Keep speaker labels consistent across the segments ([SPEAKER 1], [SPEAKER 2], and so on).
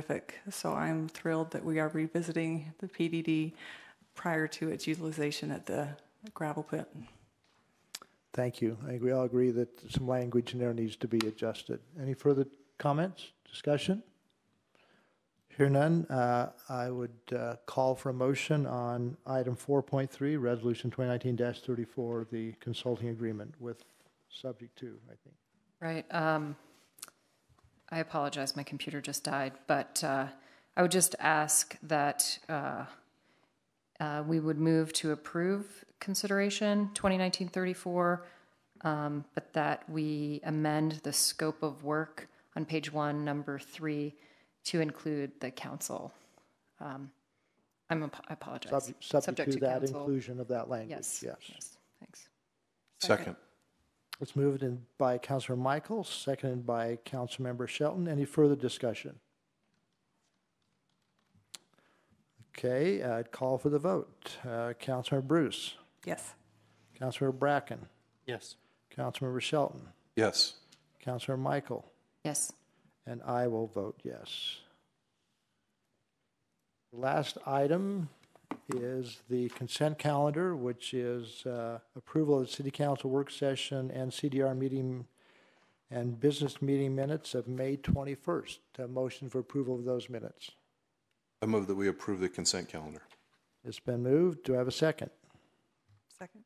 [SPEAKER 1] terrific. So I'm thrilled that we are revisiting the PDD prior to its utilization at the gravel pit.
[SPEAKER 2] Thank you. I think we all agree that some language in there needs to be adjusted. Any further comments, discussion? Hear none, uh, I would uh, call for a motion on item 4.3, Resolution 2019-34, the consulting agreement with subject to, I think.
[SPEAKER 3] Right. um, I apologize, my computer just died, but uh, I would just ask that uh, uh, we would move to approve consideration 2019-34, um, but that we amend the scope of work on page one, number three, to include the council. Um, I'm, ap- I apologize.
[SPEAKER 2] Subject- Subject
[SPEAKER 3] Subject
[SPEAKER 2] to that
[SPEAKER 3] council.
[SPEAKER 2] inclusion of that language,
[SPEAKER 3] Yes. Yes, thanks.
[SPEAKER 4] Second.
[SPEAKER 2] It's moved in by Councilor Michael, seconded by Councilmember Shelton. Any further discussion? Okay, i call for the vote. Uh, Councilmember Bruce,
[SPEAKER 1] Yes.
[SPEAKER 2] Councilmember Bracken,
[SPEAKER 5] Yes.
[SPEAKER 2] Councilmember Shelton,
[SPEAKER 4] Yes.
[SPEAKER 2] Councilor Michael,
[SPEAKER 3] Yes,
[SPEAKER 2] and I will vote yes. Last item is the consent calendar, which is uh, approval of the city council work session and CDR meeting and business meeting minutes of May 21st. A motion for approval of those minutes.
[SPEAKER 4] I move that we approve the consent calendar.
[SPEAKER 2] It's been moved. Do I have a second?
[SPEAKER 1] Second.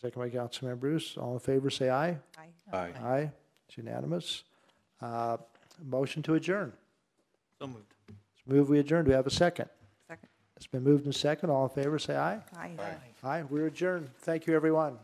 [SPEAKER 2] Second by Councilmember Bruce. All in favor, say aye.
[SPEAKER 1] Aye.
[SPEAKER 4] Aye.
[SPEAKER 2] Aye. It's unanimous. Uh, Motion to adjourn.
[SPEAKER 5] So moved.
[SPEAKER 2] Move we adjourn. Do we have a second?
[SPEAKER 1] Second.
[SPEAKER 2] It's been moved and second. All in favor, say aye.
[SPEAKER 1] Aye.
[SPEAKER 2] Aye, we're adjourned. Thank you, everyone.